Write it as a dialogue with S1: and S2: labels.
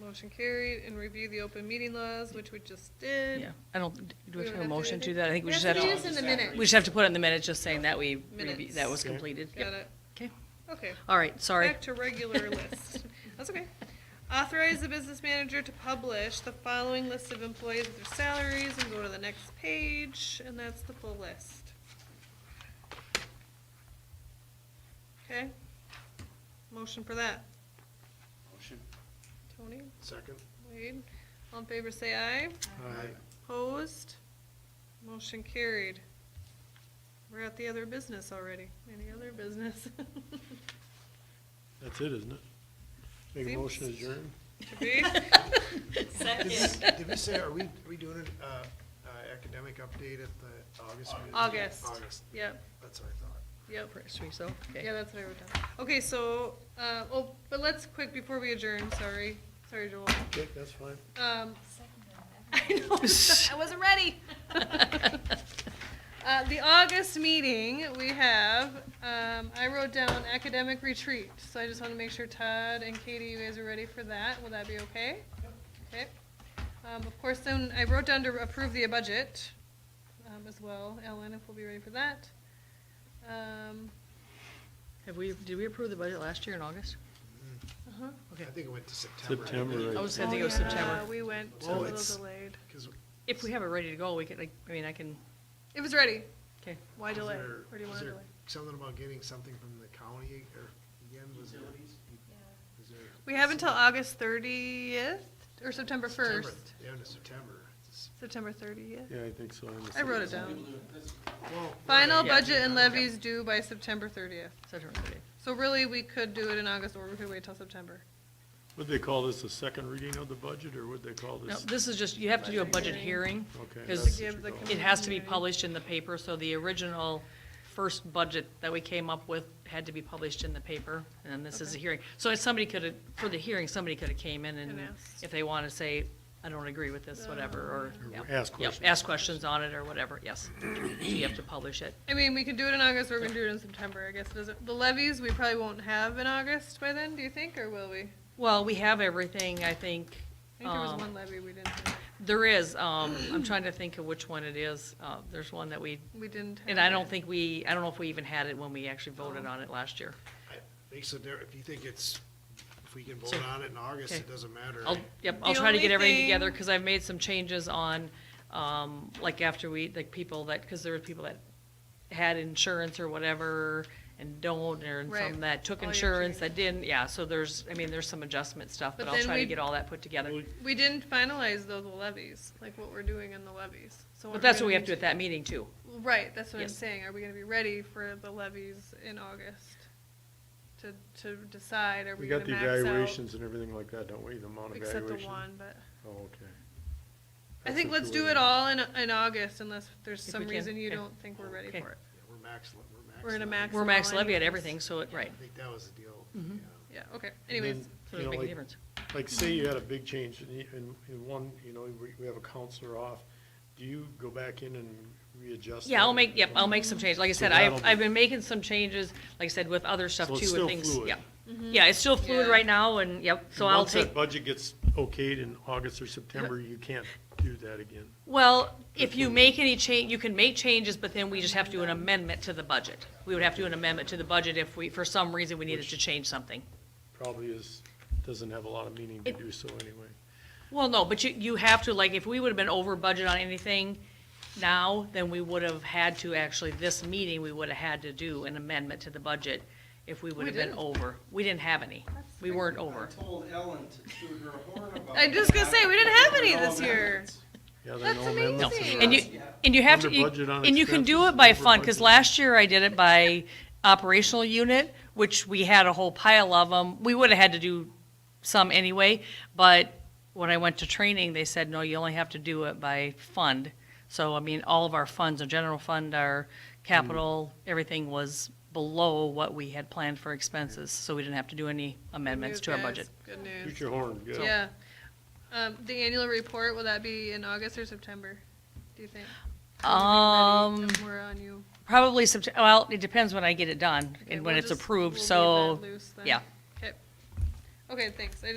S1: Motion carried, and review the open meeting laws, which we just did.
S2: Yeah, I don't, do we
S1: We would
S2: have to have a
S1: have to-
S2: motion
S1: I
S2: to
S1: think-
S2: that? I think we
S1: That's
S2: just have
S1: what it is
S2: to,
S1: in the minute.
S2: we just have to put it in the minutes, just saying that we, reviewed-
S1: Minutes.
S2: that was
S3: Okay.
S2: completed. Yep.
S1: Got it.
S2: Okay,
S1: Okay.
S2: all right, sorry.
S1: Back to regular list. That's okay. Authorize the business manager to publish the following list of employees with their salaries and go to the next page, and that's the full list. Okay? Motion for that.
S4: Motion.
S1: Tony,
S3: Second?
S1: Wade, all in favor say aye.
S3: Aye.
S1: Opposed? Motion carried. We're at the other business already. Any other business?
S3: That's it, isn't it? Make a
S1: Seems-
S3: motion adjourn?
S1: To be?
S3: Did we- Did we say, are we, are we doing an uh, uh, academic update at the August meeting?
S1: August.
S3: August,
S1: Yep,
S3: that's what I thought.
S1: yep.
S2: Anniversary, so, okay.
S1: Yeah, that's what I wrote down. Okay, so, uh, oh, but let's quick, before we adjourn, sorry, sorry, Joel.
S3: Okay, that's fine.
S1: Um, I know, I wasn't ready. Uh, the August meeting, we have, um, I wrote down academic retreat, so I just wanna make sure Todd and Katie, you guys are ready for that. Will that be okay? Okay. Um, of course, then I wrote down to approve the budget, um, as well. Ellen, if we'll be ready for that. Um,
S2: Have we, did we approve the budget last year in August?
S1: uh-huh.
S3: I think it went to September.
S4: September,
S2: I
S4: I
S2: was
S1: Oh,
S2: thinking it was September.
S1: yeah, We went a
S3: Oh,
S1: little
S3: it's-
S1: delayed.
S3: Because
S2: If we have it ready to go, we could, like, I mean, I can,
S1: It was ready.
S2: okay.
S1: Why
S3: Is
S1: delay?
S3: there-
S1: Or do you
S3: is
S1: want to
S3: there
S1: delay?
S3: Something about getting something from the county or again, was there? is there-
S1: We have until August thirtieth or September
S3: September-
S1: first.
S3: Yeah, into September. It's-
S1: September thirtieth.
S4: Yeah, I think so. I'm
S1: I wrote it
S4: assuming.
S1: down.
S3: well,
S1: Final
S2: Yeah.
S1: budget and levies due by September thirtieth.
S2: September, okay.
S1: So really, we could do it in August or we could wait till September.
S4: Would they call this a second reading of the budget, or would they call
S2: No,
S4: this?
S2: this is just, you have to do a budget hearing.
S4: Okay,
S2: Because
S4: that's what
S1: Give
S4: you
S1: the
S4: call
S1: com-
S2: It has to be published in the paper, so the original first budget that we came up with had to be published in the paper, and this is a
S1: Okay.
S2: hearing. So if somebody could have, for the hearing, somebody could have came in and
S1: And asked. Uh,
S2: if they want to say, I don't agree with this, whatever, or. yeah.
S3: Or ask
S2: Yep,
S3: questions.
S2: Ask questions on it or whatever, yes. So You have to publish it.
S1: I mean, we can do it in August or we can do it in September, I guess. it doesn't- The levies, we probably won't have in August by then, do you think, or will we? I
S2: Well, we have everything, I think.
S1: think there was
S2: um,
S1: one levy we didn't, have.
S2: There is, um, I'm trying to think of which one it is. Uh, there's one that we,
S1: we didn't.
S2: and
S1: have
S2: I
S1: it.
S2: don't think we, I don't know if we even had it when we actually voted on it last year.
S3: I- Makes a difference. If you think it's, if we can vote
S2: So-
S3: on it in August,
S2: okay.
S3: it doesn't matter.
S2: I'll,
S3: right?
S2: yep, I'll
S1: The
S2: try to get
S1: only
S2: everything
S1: thing-
S2: together, because I've made some changes on, um, like after we, like people that, because there were people that had insurance or whatever and don't, or
S1: Right.
S2: some that took
S1: All your
S2: insurance that didn't, yeah, so there's, I mean, there's some adjustment stuff,
S1: But
S2: but I'll
S1: then
S2: try to
S1: we-
S2: get all that put together.
S4: Well,
S1: We didn't finalize though the levies, like what we're doing in the levies. So
S2: But
S1: we're
S2: that's
S1: gonna
S2: what we have
S1: need
S2: to do at that meeting too.
S1: Right, that's what I'm
S2: Yes.
S1: saying. Are we gonna be ready for the levies in August? To, to decide, are
S4: We
S1: we
S4: got
S1: gonna
S4: the
S1: max out?
S4: evaluations and everything like that, don't we, the amount of
S1: Except the
S4: evaluation?
S1: one, but
S4: Oh, okay.
S1: I
S4: That's
S1: think
S4: what
S1: let's
S4: you
S1: do
S4: were-
S1: it all in, in August unless there's
S2: If we
S1: some
S2: can,
S1: reason you
S2: okay.
S1: don't think we're ready
S2: Okay.
S1: for it.
S3: Yeah, We're max, we're max.
S1: We're gonna
S3: level.
S1: max Mm-hmm.
S2: We're max
S1: Maximum
S2: levy at
S1: anyways.
S2: everything, so, it right,
S3: I think that was the deal.
S2: Mhm.
S3: yeah.
S1: Yeah, okay,
S4: And
S1: anyways,
S4: then,
S2: so
S4: you
S2: it
S4: know,
S2: make a
S4: like-
S2: difference.
S4: Like, say you had a big change in, e- in, in one, you know, we, we have a counselor off, do you go back in and readjust?
S2: Yeah, I'll
S4: that?
S2: make, yep, I'll make some changes. Like I
S4: So
S2: said, I've,
S4: that'll be-
S2: I've been making some changes, like I said, with other stuff
S4: So
S2: too,
S4: it's
S2: with
S4: still
S2: things,
S4: fluid.
S2: yeah. Yeah, it's still fluid
S1: Mm-hmm. Yeah.
S2: right now, and, yep, so I'll
S4: Once
S2: take.
S4: that budget gets okayed in August or September, you can't do that again.
S2: Well, if you make any change, you can make changes, but then we just have to do an amendment to the budget. We would have to do an amendment to the budget if we, for some reason, we needed
S4: Which-
S2: to change something.
S4: Probably is, doesn't have a lot of meaning to
S2: It-
S4: do so anyway.
S2: Well, no, but you, you have to, like, if we would have been over budget on anything now, then we would have had to, actually, this meeting, we would have had to do an amendment to the budget if we would
S1: We
S2: have been
S1: didn't.
S2: over. We didn't have any. We weren't over.
S5: I told Ellen to toot her horn about
S1: I'm just gonna
S5: that.
S1: say, we didn't have any
S5: There were no
S1: this year.
S5: amendments.
S4: Yeah, there are
S1: That's
S4: no amendments
S1: amazing.
S4: in
S2: And you,
S5: Yeah.
S2: and you have to,
S4: Under
S2: you-
S4: budget on
S2: and you can do
S4: expenses,
S2: it by
S4: over
S2: fund, because
S4: budget.
S2: last year I did it by operational unit, which we had a whole pile of them. We would have had to do some anyway, but when I went to training, they said, no, you only have to do it by fund. So, I mean, all of our funds, our general fund, our capital,
S4: Mm-hmm.
S2: everything was below what we had planned for expenses, so we didn't have to do any amendments
S1: Good
S2: to our
S1: news,
S2: budget.
S1: guys. Good news.
S4: Shoot your horn, good.
S1: Yeah. Um, the annual report, will that be in August or September, do you think? Are we ready?
S2: Um,
S1: We're on you.
S2: Probably Sept- well, it depends when I get it done
S1: Okay,
S2: and when
S1: we'll
S2: it's
S1: just- we'll
S2: approved,
S1: leave
S2: so.
S1: that loose then.
S2: yeah.
S1: Okay, Okay, thanks. I